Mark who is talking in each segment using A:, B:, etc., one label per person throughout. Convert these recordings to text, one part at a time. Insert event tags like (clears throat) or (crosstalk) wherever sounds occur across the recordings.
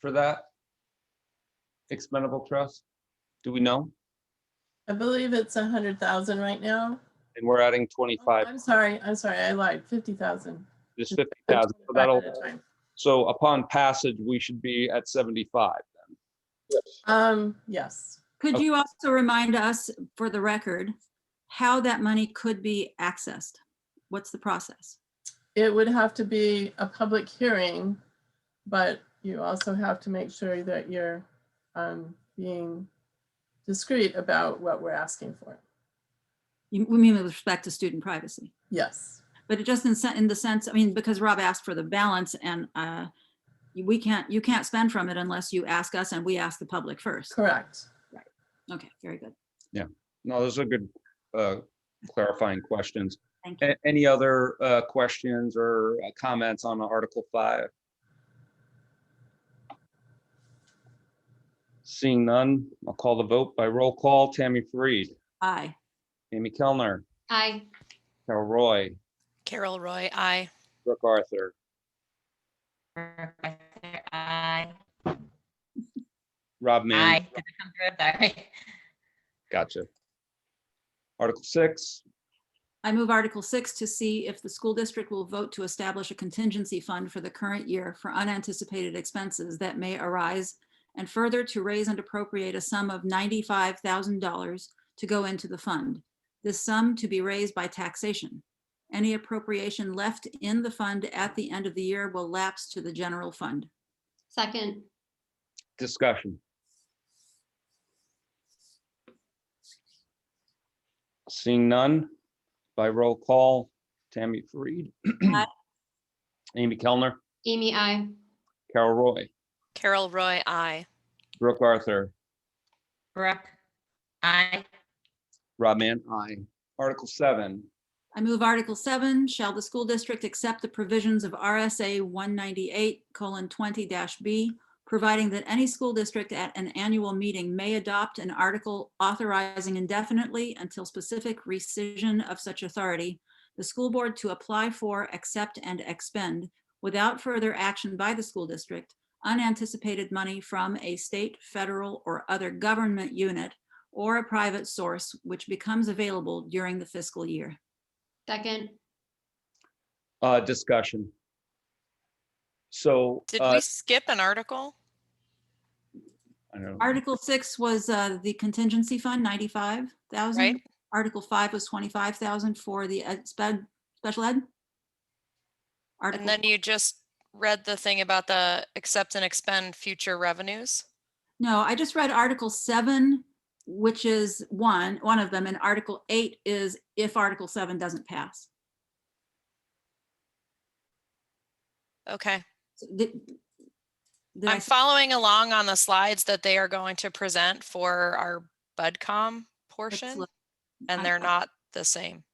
A: for that? Expendable trust? Do we know?
B: I believe it's a hundred thousand right now.
A: And we're adding
B: Oh,
A: twenty-five,
B: I'm sorry, I'm sorry, I lied, fifty thousand.
A: this fifty thousand, so that'll, so upon passage, we should be at seventy-five.
B: Um, yes,
C: Could
A: Okay.
C: you also remind us, for the record, how that money could be accessed? What's the process?
B: it would have to be a public hearing, but you also have to make sure that you're um being discreet about what we're asking for.
C: You- We mean with respect to student privacy,
B: Yes,
C: but it just in sen- in the sense, I mean, because Rob asked for the balance and uh, we can't, you can't spend from it unless you ask us and we ask the public first.
B: correct.
C: Okay, very good.
A: No, those are good uh, clarifying questions.
C: Thank
A: A- Any other uh, questions or uh, comments on Article 5? Seeing none, I'll call the vote by roll call. Tammy Fareed,
C: Aye.
A: Amy Kellner,
D: Aye.
A: Carol Roy,
D: Carol Roy, aye.
A: Brooke Arthur,
E: Brooke Arthur, aye.
A: Rob Mann.
E: Aye. Did it come through? Sorry.
A: Gotcha. Article 6,
C: I move Article 6 to see if the school district will vote to establish a contingency fund for the current year for unanticipated expenses that may arise, and further to raise and appropriate a sum of $95,000 to go into the fund. This sum to be raised by taxation. Any appropriation left in the fund at the end of the year will lapse to the general fund.
D: Second.
A: discussion. Seeing none, by roll call, Tammy Fareed.
C: Aye.
A: (clears throat) Amy Kellner,
D: Amy, aye.
A: Carol Roy,
D: Carol Roy, aye.
A: Brooke Arthur,
E: Brooke, aye.
A: Rob Mann, aye. Article seven,
C: I move Article 7, shall the school district accept the provisions of RSA 198 colon 20 dash B, providing that any school district at an annual meeting may adopt an article authorizing indefinitely until specific rescission of such authority, the school board to apply for, accept, and expend without further action by the school district, unanticipated money from a state, federal, or other government unit or a private source which becomes available during the fiscal year.
D: Second.
A: uh, discussion. So,
F: Did
A: uh,
F: we skip an article?
A: I don't know,
C: Article six was uh, the contingency fund, ninety-five thousand.
F: Right.
C: Article five was twenty-five thousand for the ed- sped, special ed.
F: And
C: Article,
F: then you just read the thing about the accept and expend future revenues?
C: no, I just read article seven, which is one, one of them, and article eight is if article seven doesn't pass.
F: Okay,
C: So did- did I
F: I'm
C: s-
F: following along on the slides that they are going to present for our BudCom portion,
C: look. I-
F: and they're
C: I-
F: not the same.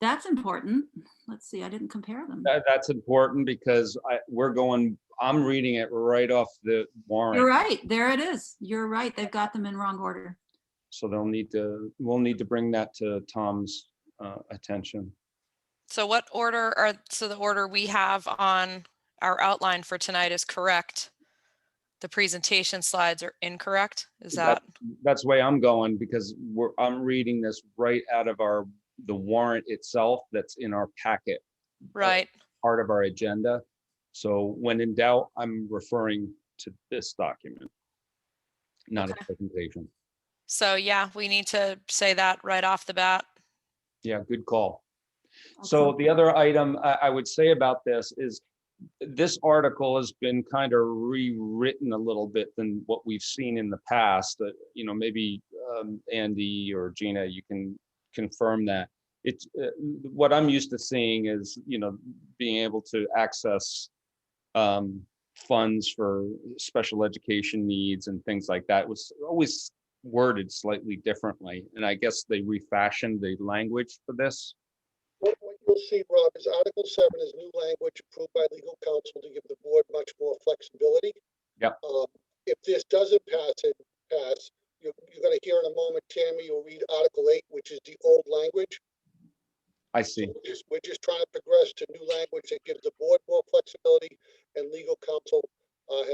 C: That's important. Let's see, I didn't compare them.
A: that, that's important because I, we're going, I'm reading it right off the
C: You're
A: warrant.
C: right, there it is. You're right, they've got them in wrong order.
A: So they'll need to, we'll need to bring that to Tom's, uh, attention.
F: So what order are, so the order we have on our outline for tonight is correct? The presentation slides are incorrect? Is that,
A: That- That's the way I'm going because we're, I'm reading this right out of our, the warrant itself that's in our packet.
F: right?
A: part of our agenda. So when in doubt, I'm referring to this document, not a presentation.
F: So yeah, we need to say that right off the bat.
A: Yeah, good call. So
C: Excellent.
A: the other item I, I would say about this is this article has been kind of rewritten a little bit than what we've seen in the past. That, you know, maybe um, Andy or Gina, you can confirm that. It's, uh, what I'm used to seeing is, you know, being able to access um, funds for special education needs and things like that was always worded slightly differently. And I guess they refashioned the language for this.
G: What what you'll see, Rob, is Article seven is new language approved by legal counsel to give the board much more flexibility.
A: Yep.
G: Um, If this doesn't pass it, pass, you're, you're gonna hear in a moment, Tammy, you'll read Article eight, which is the old language.
A: I see.
G: We're just- We're just trying to progress to new language that gives uh,